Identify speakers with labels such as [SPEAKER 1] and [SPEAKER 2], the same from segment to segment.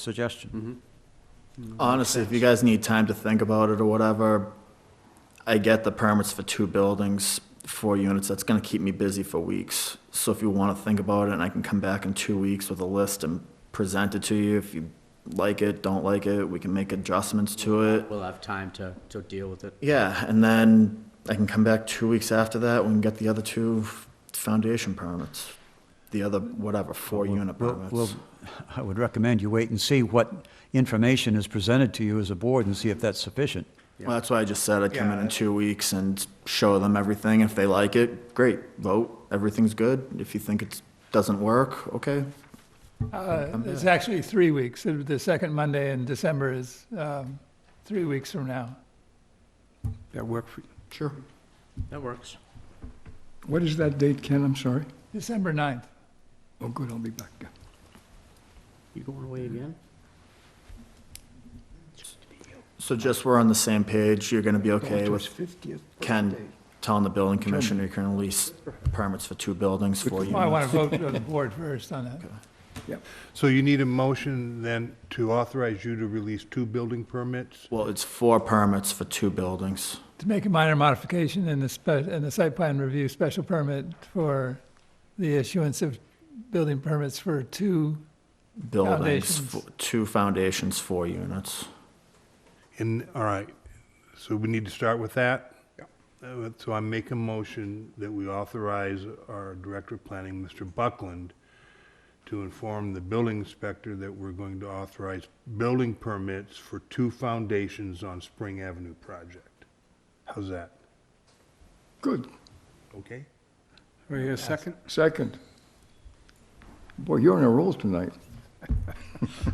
[SPEAKER 1] suggestion.
[SPEAKER 2] Mm-hmm.
[SPEAKER 3] Honestly, if you guys need time to think about it or whatever, I get the permits for two buildings, four units, that's gonna keep me busy for weeks. So if you wanna think about it, and I can come back in two weeks with a list and present it to you, if you like it, don't like it, we can make adjustments to it.
[SPEAKER 2] We'll have time to, to deal with it.
[SPEAKER 3] Yeah, and then I can come back two weeks after that, we can get the other two f- foundation permits. The other, whatever, four
[SPEAKER 1] Well,
[SPEAKER 3] unit
[SPEAKER 1] well,
[SPEAKER 3] permits.
[SPEAKER 1] well, I would recommend you wait and see what information is presented to you as a board and see if that's sufficient.
[SPEAKER 3] Well, that's why I just said I'd come in
[SPEAKER 4] Yeah.
[SPEAKER 3] in two weeks and show them everything. If they like it, great, vote, everything's good. If you think it doesn't work, okay.
[SPEAKER 4] Uh, It's actually three weeks. The the second Monday in December is um, three weeks from now.
[SPEAKER 5] That work for you.
[SPEAKER 3] Sure.
[SPEAKER 2] That works.
[SPEAKER 5] What is that date, Ken? I'm sorry.
[SPEAKER 4] December 9th.
[SPEAKER 5] Oh, good, I'll be back.
[SPEAKER 2] You going away again?
[SPEAKER 3] So just we're on the same page, you're gonna be okay with Ken telling the building commissioner you can release permits for two buildings, four
[SPEAKER 4] Well, I want
[SPEAKER 3] units.
[SPEAKER 4] to vote on the board first on that.
[SPEAKER 6] So you need a motion then to authorize you to release two building permits?
[SPEAKER 3] Well, it's four permits for two buildings.
[SPEAKER 4] To make a minor modification in the spe, in the site plan review special permit for the issuance of building permits for two,
[SPEAKER 3] Buildings,
[SPEAKER 4] Foundations.
[SPEAKER 3] fo- two foundations, four units.
[SPEAKER 6] And, all right, so we need to start with that? Uh, So I make a motion that we authorize our Director of Planning, Mr. Buckland, to inform the building inspector that we're going to authorize building permits for two foundations on Spring Avenue project. How's that?
[SPEAKER 5] Good.
[SPEAKER 6] Okay?
[SPEAKER 5] Are you a second?
[SPEAKER 7] Second.
[SPEAKER 5] Boy, you're on a roll tonight.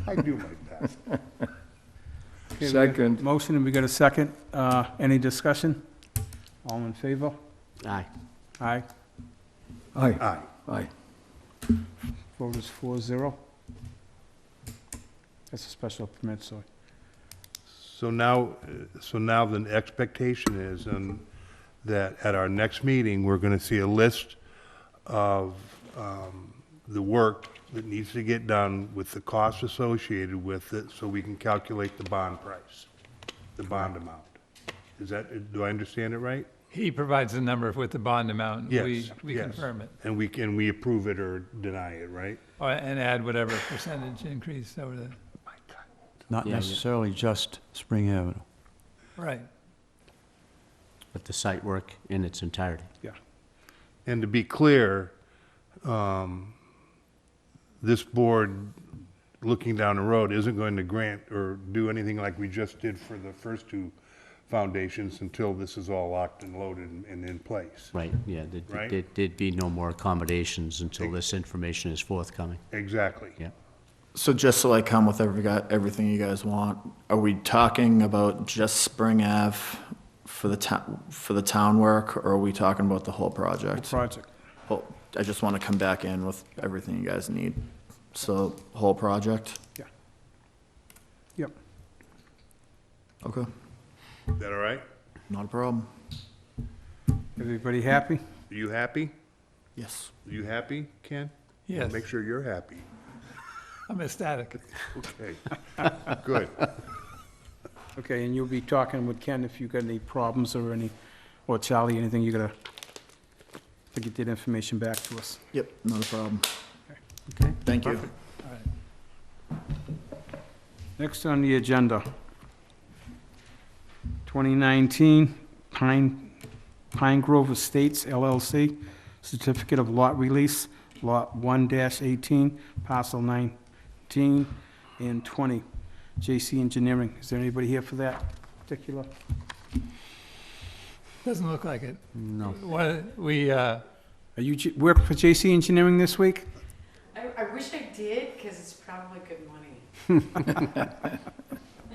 [SPEAKER 6] I do my best.
[SPEAKER 7] Second.
[SPEAKER 8] Motion, and we got a second. Uh, Any discussion? All in favor?
[SPEAKER 2] Aye.
[SPEAKER 8] Aye.
[SPEAKER 5] Aye,
[SPEAKER 6] Aye.
[SPEAKER 5] aye.
[SPEAKER 8] Vote is four zero. That's a special permit, so
[SPEAKER 6] So now, uh, so now the expectation is um, that at our next meeting, we're going to see a list of um, the work that needs to get done with the costs associated with it, so we can calculate the bond price, the bond amount. Is that, do I understand it right?
[SPEAKER 4] he provides the number with the bond amount.
[SPEAKER 6] Yes.
[SPEAKER 4] We, we
[SPEAKER 6] yes.
[SPEAKER 4] confirm it,
[SPEAKER 6] And we can, we approve it or deny it, right?
[SPEAKER 4] Or- and add whatever percentage increase over the,
[SPEAKER 1] Not
[SPEAKER 2] Yeah, yeah.
[SPEAKER 1] necessarily just Spring Avenue.
[SPEAKER 4] right.
[SPEAKER 2] But the site work in its entirety.
[SPEAKER 6] And to be clear, um, this board, looking down the road, isn't going to grant or do anything like we just did for the first two foundations until this is all locked and loaded and- and in place.
[SPEAKER 2] Right, yeah, there'd-
[SPEAKER 6] Right.
[SPEAKER 2] there'd, there'd be no more accommodations until this information is forthcoming,
[SPEAKER 6] Exactly.
[SPEAKER 2] yeah.
[SPEAKER 3] So just so I come with every, guy- everything you guys want, are we talking about just Spring Ave for the town, for the town work, or are we talking about the whole
[SPEAKER 8] the
[SPEAKER 3] project?
[SPEAKER 8] project.
[SPEAKER 3] Whole- I just want to come back in with everything you guys need. So, whole project?
[SPEAKER 8] Yep.
[SPEAKER 3] Okay,
[SPEAKER 6] Is that all right?
[SPEAKER 3] not a problem.
[SPEAKER 8] Everybody happy?
[SPEAKER 6] Are you happy?
[SPEAKER 3] Yes.
[SPEAKER 6] Are you happy, Ken?
[SPEAKER 4] Yes,
[SPEAKER 6] Make sure you're happy.
[SPEAKER 4] I'm ecstatic.
[SPEAKER 6] Okay. Good.
[SPEAKER 8] Okay, and you'll be talking with Ken if you got any problems or any, or Charlie, anything, you gotta, to get that information back to us.
[SPEAKER 3] Yep, not a problem.
[SPEAKER 8] Okay.
[SPEAKER 3] Thank you.
[SPEAKER 8] Next on the agenda, 2019 Pine, Pine Grove Estates LLC, Certificate of Lot Release, Lot 1-18, Parcel 19 and 20, JC Engineering. Is there anybody here for that particular?
[SPEAKER 4] Doesn't look like it.
[SPEAKER 2] No.
[SPEAKER 4] One- We, uh,
[SPEAKER 8] Are you, J- work for JC Engineering this week?
[SPEAKER 9] I, I wish I did, because it's probably good money.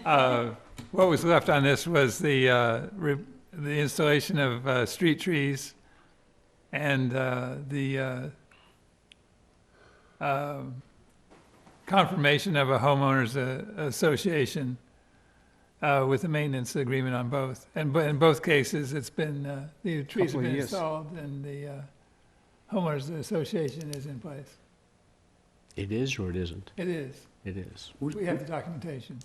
[SPEAKER 4] Uh, What was left on this was the, uh, re- the installation of uh, street trees and uh, the uh, um, confirmation of a homeowners uh, association uh, with a maintenance agreement on both. And but in both cases, it's been, uh, the trees have
[SPEAKER 8] Couple of
[SPEAKER 4] been
[SPEAKER 8] years.
[SPEAKER 4] installed and the uh, homeowners association is in place.
[SPEAKER 2] It is or it isn't?
[SPEAKER 4] It is.
[SPEAKER 2] It is.
[SPEAKER 4] We have the documentation.